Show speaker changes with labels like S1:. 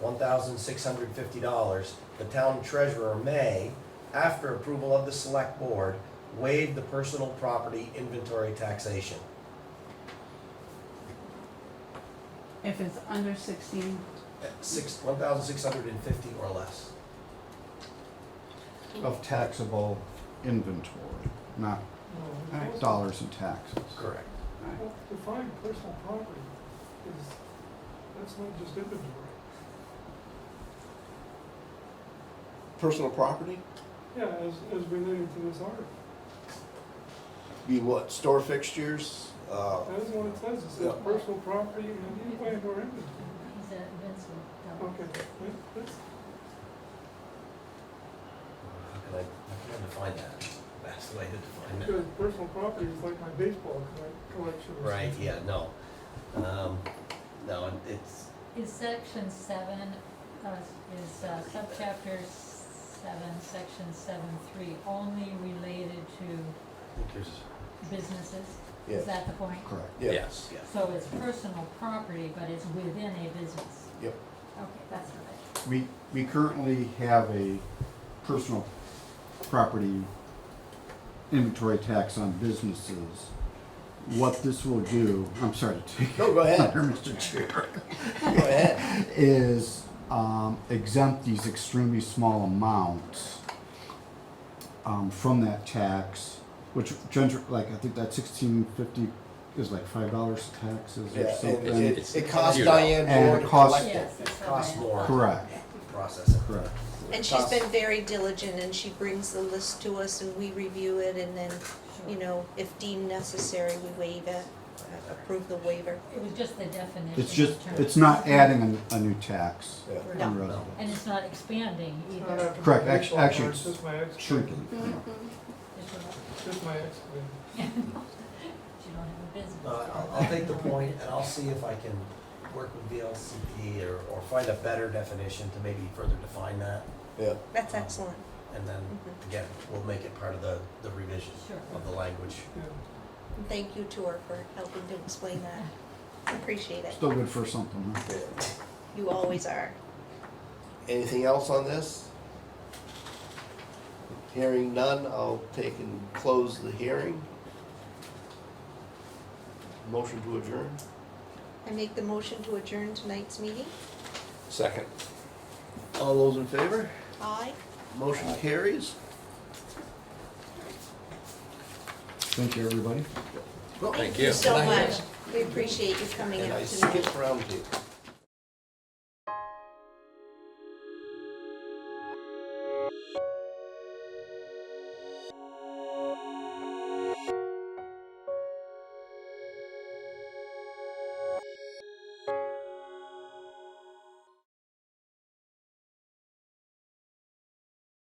S1: one thousand six hundred fifty dollars, the town treasurer may, after approval of the select board, waive the personal property inventory taxation.
S2: If it's under sixteen,
S1: At Six, one thousand six hundred and fifty or less.
S3: of taxable inventory, not
S4: Alright.
S3: dollars in taxes.
S1: Correct.
S4: Well, Define personal property is, that's not just inventory.
S5: Personal property?
S4: Yeah, as, as related to this article.
S5: Be what, store fixtures? Uh,
S4: That is what it says. It says
S5: Yeah.
S4: personal property and any way or inventory.
S6: He's at Vincent.
S4: Okay, that- that's,
S1: How can I, how can I define that? That's the way to define that.
S4: because personal property is like my baseball collec- collection. or
S1: Right,
S4: something.
S1: yeah, no. Um, no, it's,
S6: Is section seven, uh, is uh, subchapter seven, section seven three, only related to
S1: I think there's,
S6: businesses?
S5: yeah,
S6: Is that the point?
S3: Correct.
S5: yeah.
S1: yes, yeah.
S6: So it's personal property, but it's within a business?
S5: Yep.
S6: Okay, that's right.
S3: We, we currently have a personal property inventory tax on businesses. What this will do, I'm sorry to take
S5: No, go ahead.
S3: under Mr. Chair,
S5: Go ahead.
S3: is um, exempt these extremely small amounts um, from that tax, which gen- like I think that sixteen fifty is like five dollars taxes
S5: Yeah,
S3: or
S5: it,
S3: something.
S5: it, it costs
S1: Zero.
S5: Diane
S3: And
S5: more
S3: it
S5: to
S3: costs-
S5: collect it.
S6: Yes, that's what I
S1: Costs
S6: meant.
S1: more.
S3: Correct.
S1: to Process it.
S3: Correct.
S7: And she's been very diligent and she brings the list to us and we review it and then, you
S6: Sure.
S7: know, if deemed necessary, we waive it, uh, approve the waiver.
S6: It was just the definition.
S3: It's just,
S6: in terms
S3: it's
S6: of-
S3: not adding a, a new tax
S5: Yeah.
S6: Right.
S3: on
S6: And
S3: residents.
S6: it's not expanding
S4: It's not
S6: either.
S4: after my
S3: Correct, act-
S4: baseball
S3: actually
S4: card, It's just my ex.
S3: Shrinking, yeah.
S6: It's not-
S4: Just my ex.
S6: You don't have a business.
S1: Uh, I'll, I'll take the point and I'll see if I can work with VLCT or, or find a better definition to maybe further define that.
S5: Yeah.
S7: That's excellent. Mm-hmm.
S1: And then, again, we'll make it part of the, the revision
S6: Sure.
S1: of the language.
S4: Yeah.
S7: And Thank you to her for helping to explain that. Appreciate it.
S3: Still good for something, huh?
S5: Yeah.
S7: You always are.
S5: Anything else on this? Hearing none, I'll take and close the hearing. Motion to adjourn.
S7: I make the motion to adjourn tonight's meeting.
S5: Second. All those in favor?
S7: Aye.
S5: Motion carries.
S3: Thank you, everybody.
S7: Thank you so
S5: And I-
S7: much. We appreciate you coming
S5: And
S7: out
S5: I
S7: tonight.
S5: skipped round table.